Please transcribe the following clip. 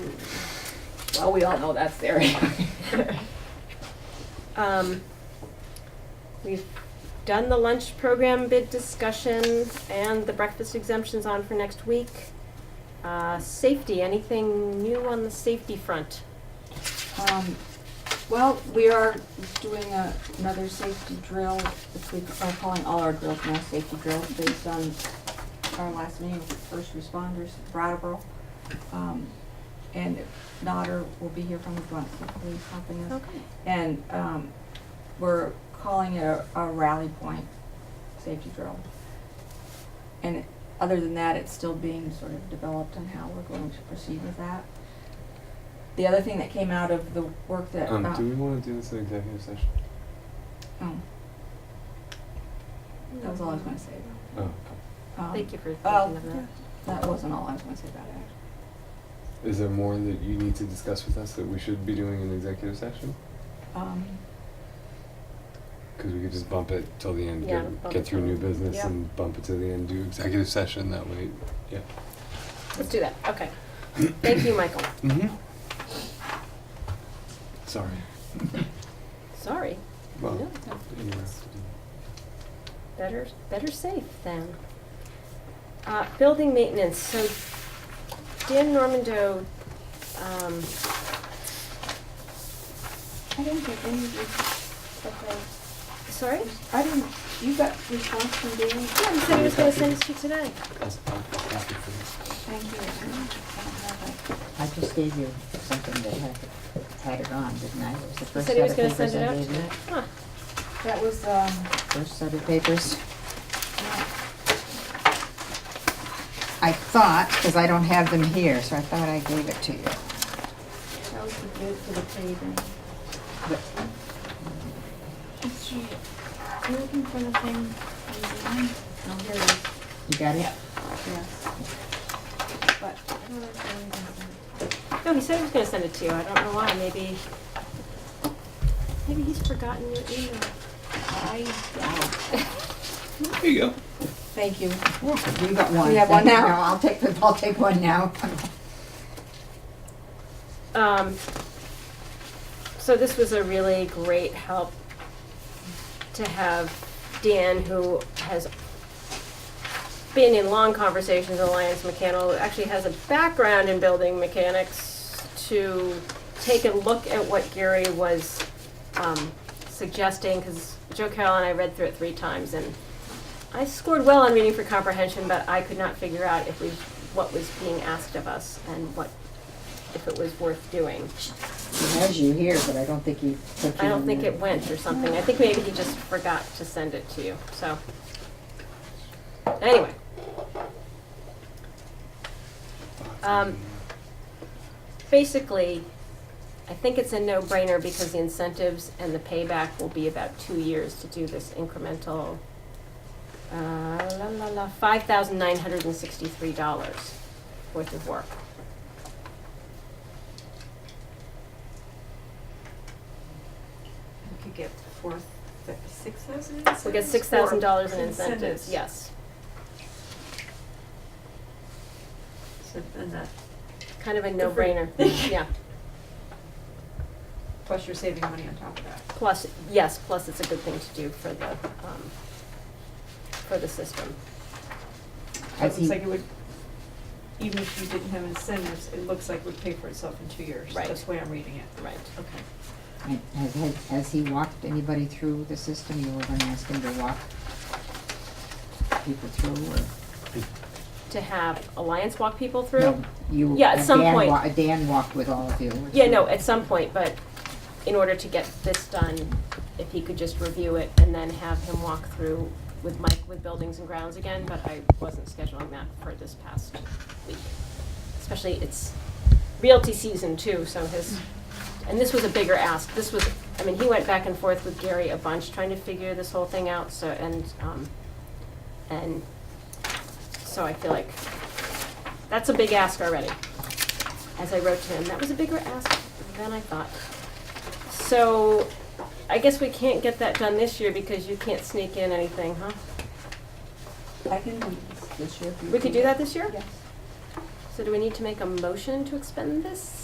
Well, we all know that's there. Um, We've done the lunch program bid discussion and the breakfast exemptions on for next week. Uh, Safety, anything new on the safety front? Um, well, we are doing a, another safety drill, which we are calling all our drills now safety drills, based on our last meeting with first responders, Brattleboro. Um, and Nodder will be here from the Brunswick Police helping us. Okay. And, um, we're calling it a, a rally point safety drill. And other than that, it's still being sort of developed on how we're going to proceed with that. The other thing that came out of the work that, Um, Oh. uh, do we want to do this in executive session? oh, that was all I was gonna say about Oh, okay. it. Um, Thank you for thinking oh, of that. That wasn't all I was gonna say about it, actually. Is there more that you need to discuss with us that we should be doing in executive session? Um, Because we could just bump it till the end, Yeah, get, bump get it through till new the end. business Yeah. and bump it to the end, do executive session that way. Yeah. Let's do that, okay. Thank you, Michael. Mm-hmm. Sorry. Sorry, Well, No. you don't have to do that. better, better safe than. Uh, Building maintenance, so Dan Normando, um, I didn't get any response, sorry? I didn't, you got response from Danny? Yeah, he said he was gonna send it to you today. That's- I'll- I'll copy for this. Thank you. I don't have it. I just gave you something that had, had it on, didn't I? It was He the first said he set was of gonna papers I send it out gave today. you. Huh. That was, um, First set of papers. yeah. I thought, because I don't have them here, so I thought I gave it to you. That was the bid for the paving. But Is she, you looking for the thing online? No, here it is, you got it? yes. But. I don't know if there is anything. No, he said he was gonna send it to you. I don't know why. Maybe, maybe he's forgotten your email. I, wow. There you go. Thank you. You got one. We have one Thank you. now. No, I'll take, the- I'll take one now. Um, so this was a really great help to have Dan, who has been in long conversations with Alliance Mechanical, actually has a background in building mechanics, to take a look at what Gary was um, suggesting, because Joe Carroll and I read through it three times, and I scored well on reading for comprehension, but I could not figure out if we, what was being asked of us and what, if it was worth doing. He has you here, but I don't think he took you. I don't in think there. it went or something. I think maybe he just forgot to send it to you, so. Anyway. Um, basically, I think it's a no-brainer because the incentives and the payback will be about two years to do this incremental, uh, la, la, la, five thousand nine hundred and sixty-three dollars worth of work. We could get four, th- six thousand incentives? We'll get six thousand dollars in incentives, yes. So then that, Kind of a Good for you. no-brainer, yeah. plus you're saving money on top of that. Plus, yes, plus it's a good thing to do for the, um, for the system. I It looks like think, it would, even if you didn't have incentives, it looks like it would pay for itself in two years. Right. That's the way I'm reading it. Right. Okay. I- has, had- has he walked anybody through the system? You were gonna ask him to walk people through, or? To have Alliance walk people through? No, You, Yeah, at uh, some Dan point. wa- Dan walked with all of you. which Yeah, no, was- at some point, but in order to get this done, if he could just review it and then have him walk through with Mike with buildings and grounds again, but I wasn't scheduling that for this past week. Especially it's realty season too, so his, and this was a bigger ask. This was, I mean, he went back and forth with Gary a bunch trying to figure this whole thing out, so, and, um, and so I feel like that's a big ask already as I wrote to him. That was a bigger ask than I thought. So I guess we can't get that done this year because you can't sneak in anything, huh? I can do this this year. if you We could can do get- that this year? Yes. So do we need to make a motion to expend this?